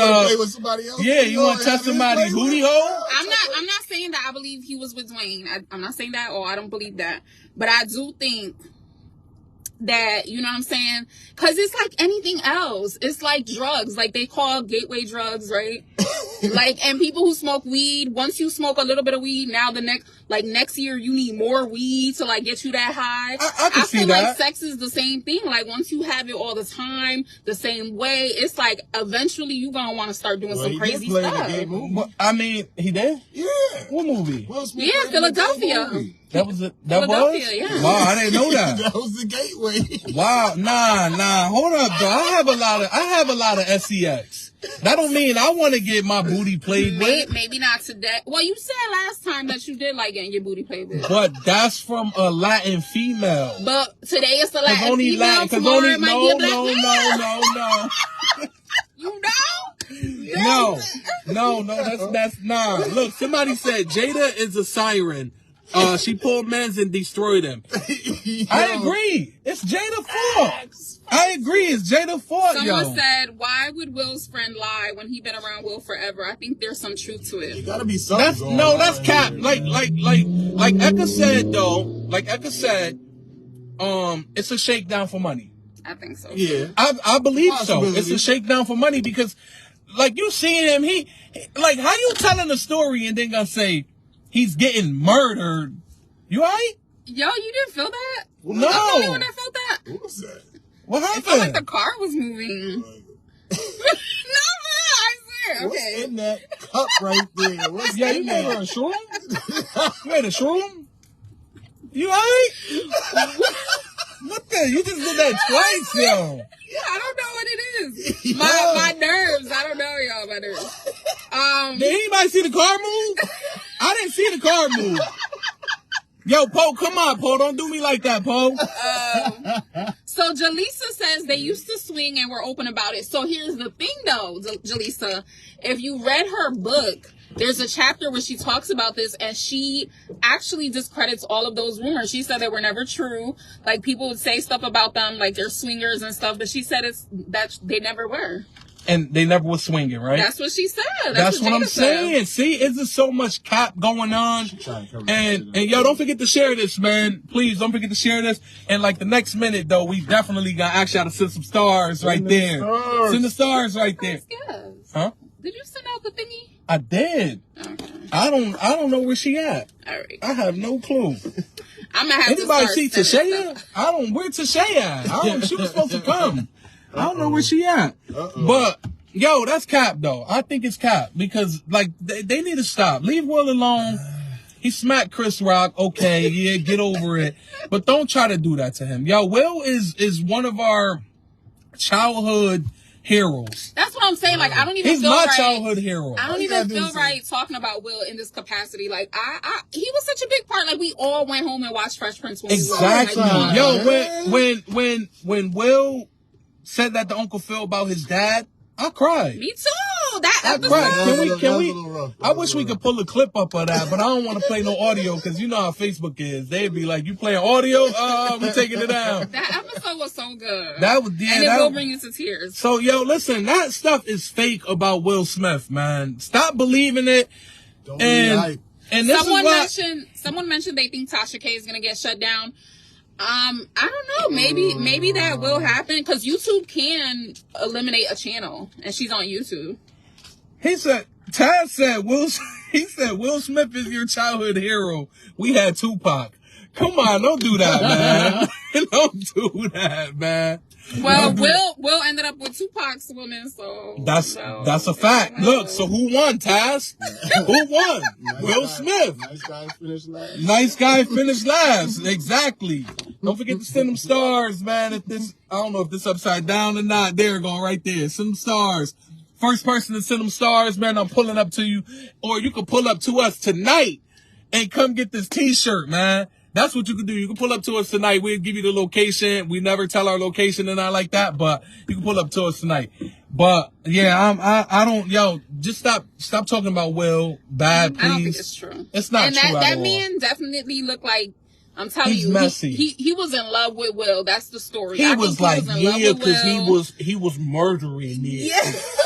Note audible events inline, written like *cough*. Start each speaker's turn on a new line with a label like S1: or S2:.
S1: Uh,
S2: play with somebody else.
S1: yeah, you
S2: know,
S1: want to
S2: have
S1: touch
S2: him
S1: somebody
S2: play with
S1: booty
S2: him.
S1: hole?
S2: Yeah, touch
S3: I'm not. I'm not saying that I believe he was with Dwayne. I, I'm not saying that, or I don't believe that. But I do think that you know what I'm saying, because it's like anything else. It's like drugs. Like they call gateway
S1: *laughs*
S3: drugs, right? like and people who smoke weed. Once you smoke a little bit of weed, now the next, like next year, you need more weed to like get you that high.
S1: I- I can see
S3: feel like
S1: that.
S3: sex is the same thing. Like once you have it all the time, the same way, it's like eventually you gonna want to start doing
S2: Well,
S3: some
S2: he did
S3: crazy
S2: play in the
S3: stuff.
S2: game movie.
S1: But, I mean, he did.
S2: Yeah.
S1: What movie?
S2: Will Smith
S3: Yeah,
S2: played in the damn
S3: Philadelphia.
S2: movie.
S1: That was it. That was.
S3: Philadelphia, yeah.
S1: Wow, Oh, I didn't know that.
S2: *laughs* that was the gateway. *laughs*
S1: Wow, nah, nah. Hold up, though. I have a lot of I have a lot of sex. That don't mean I want to get my booty played
S3: May-
S1: with,
S3: maybe not today. Well, you said last time that you did like getting your booty played with.
S1: but that's from a Latin female.
S3: But today it's a
S1: Cause
S3: Latin
S1: only
S3: female.
S1: Latin. Cause
S3: tomorrow
S1: only
S3: it might be a
S1: no,
S3: black
S1: no,
S3: man.
S1: no, no, no.
S3: You know?
S1: No, no, no. That's that's nah. Look, somebody said Jada is a siren. Uh, she pulled men's and destroyed them. I
S2: Yo.
S1: agree. It's Jada fault. I agree. It's Jada fault,
S3: Someone
S1: yo.
S3: said, "Why would Will's friend lie when he been around Will forever?" I think there's some truth to it.
S2: Gotta be something.
S1: That's
S2: going
S1: no.
S2: on
S1: That's cap.
S2: here.
S1: Like like like like Eka said though. Like Eka said, um, it's a shakedown for money.
S3: I think so.
S2: yeah.
S1: I, I believe so.
S2: Possibility.
S1: It's a shakedown for money because, like you seeing him, he like how you telling a story and then gonna say he's getting murdered. You alright?
S3: Yo, you didn't feel that?
S1: No.
S3: I'm the only one that felt that.
S2: Who was that?
S1: What
S3: It felt like
S1: happened?
S3: the car was moving. *laughs* no, man, I swear.
S2: What's
S3: Okay.
S2: in that cup right there? What's
S1: yeah, you
S2: in
S1: made her a
S2: there?
S1: shroom. You made a shroom. You alright? what the? You just did that twice, yo.
S3: I don't know what
S1: *laughs*
S3: it is. My my nerves. I don't know, y'all. My nerves. Um.
S1: Did anybody see the car move? I didn't see the car move. Yo, Poe, come on, Poe. Don't do me like that, Poe.
S3: So Jaleesa says
S1: Mm-hmm.
S3: they used to swing and were open about it. So here's the thing though, J- Jaleesa. If you read her book, there's a chapter where she talks about this and she actually discredits all of those rumors. She said they were never true. Like people would say stuff about them, like they're swingers and stuff, but she said it's that they never were.
S1: And they never was swinging, right?
S3: That's what she said. That's,
S1: That's what I'm
S3: Jada said.
S1: saying. See, it's just so much cap going on.
S2: trying to cover
S1: And
S2: that shit
S1: and yo, don't forget to share this, man. Please don't forget to share this. And like the next minute though, we definitely got actually gotta send some stars right
S2: the
S1: there.
S2: stars.
S1: Send the stars right there.
S3: Yes, yes.
S1: Huh?
S3: Did you send out the thingy?
S1: I did.
S3: Okay.
S1: I don't I don't know where she at.
S3: All right.
S1: I have no clue.
S3: I'm gonna
S1: Anybody
S3: have to start
S1: see
S3: sending stuff.
S1: Tashaya? I don't where Tashaya at? I don't she was supposed to come. I don't know where she at.
S2: Uh-oh.
S1: But yo, that's cap though. I think it's cap because like they, they need to stop. Leave Will alone. He smacked Chris Rock. Okay, yeah, get over it. But don't try to do that to him. Yo, Will is is one of our childhood heroes.
S3: That's what I'm saying. Like I don't even
S1: He's
S3: feel
S1: my
S3: right.
S1: childhood hero.
S3: I don't
S2: you
S3: even
S2: gotta do
S3: feel
S2: is-
S3: right talking about Will in this capacity. Like I, I, he was such a big part. Like we all went home and watched Fresh Prince. When
S1: Exactly.
S3: We were, like,
S1: Yo,
S2: Yeah.
S1: when when when when Will said that to Uncle Phil about his dad, I cried.
S3: me too. That
S1: I
S3: episode.
S1: cried. Can
S2: That
S1: we?
S2: was
S1: Can
S2: a
S1: we?
S2: little rough.
S1: I wish we could pull a clip up of that, but I don't want to play no audio because you know how Facebook is. They'd be like, "You playing audio? Uh, we taking it down."
S3: That episode was so good.
S1: That was yeah.
S3: and it
S1: that-
S3: will bring you to tears.
S1: so yo, listen, that stuff is fake about Will Smith, man. Stop believing it.
S2: Don't
S1: And
S2: be hype.
S1: and this
S3: Someone
S1: is why.
S3: mentioned. Someone mentioned they think Tasha K is gonna get shut down. Um, I don't know. Maybe, maybe that
S1: Mm.
S3: will happen because YouTube can eliminate a channel, and she's on YouTube.
S1: He said, Taz said, Will, *laughs* he said, Will Smith is your childhood hero. We had Tupac. Come on, don't do that, man. *laughs* don't do that, man.
S3: Well, Will Will ended up with Tupac's woman, so
S1: That's,
S3: so-
S1: that's a fact. Look, so who won, Taz? Who won?
S2: Nice
S1: Will
S2: guy-
S1: Smith.
S2: Nice guy finished last.
S1: Nice guy finished last. Exactly. Don't forget to send them stars, man. If this, I don't know if this upside down or not. There we go, right there. Send them stars. First person to send them stars, man. I'm pulling up to you, or you can pull up to us tonight and come get this T-shirt, man. That's what you can do. You can pull up to us tonight. We'll give you the location. We never tell our location and I like that, but you can pull up to us tonight. But yeah, I'm, I, I don't, yo, just stop, stop talking about Will bad, please.
S3: I don't think it's true.
S1: It's not
S3: and
S1: true
S3: that,
S1: at
S3: that
S1: all.
S3: man definitely looked like I'm telling
S1: He's
S3: you, he-
S1: messy.
S3: He, he was in love with Will. That's the story. I
S1: He
S3: think
S1: was like,
S3: in love
S1: yeah,
S3: with
S1: because he
S3: Will.
S1: was he was murdering it.
S3: Yes.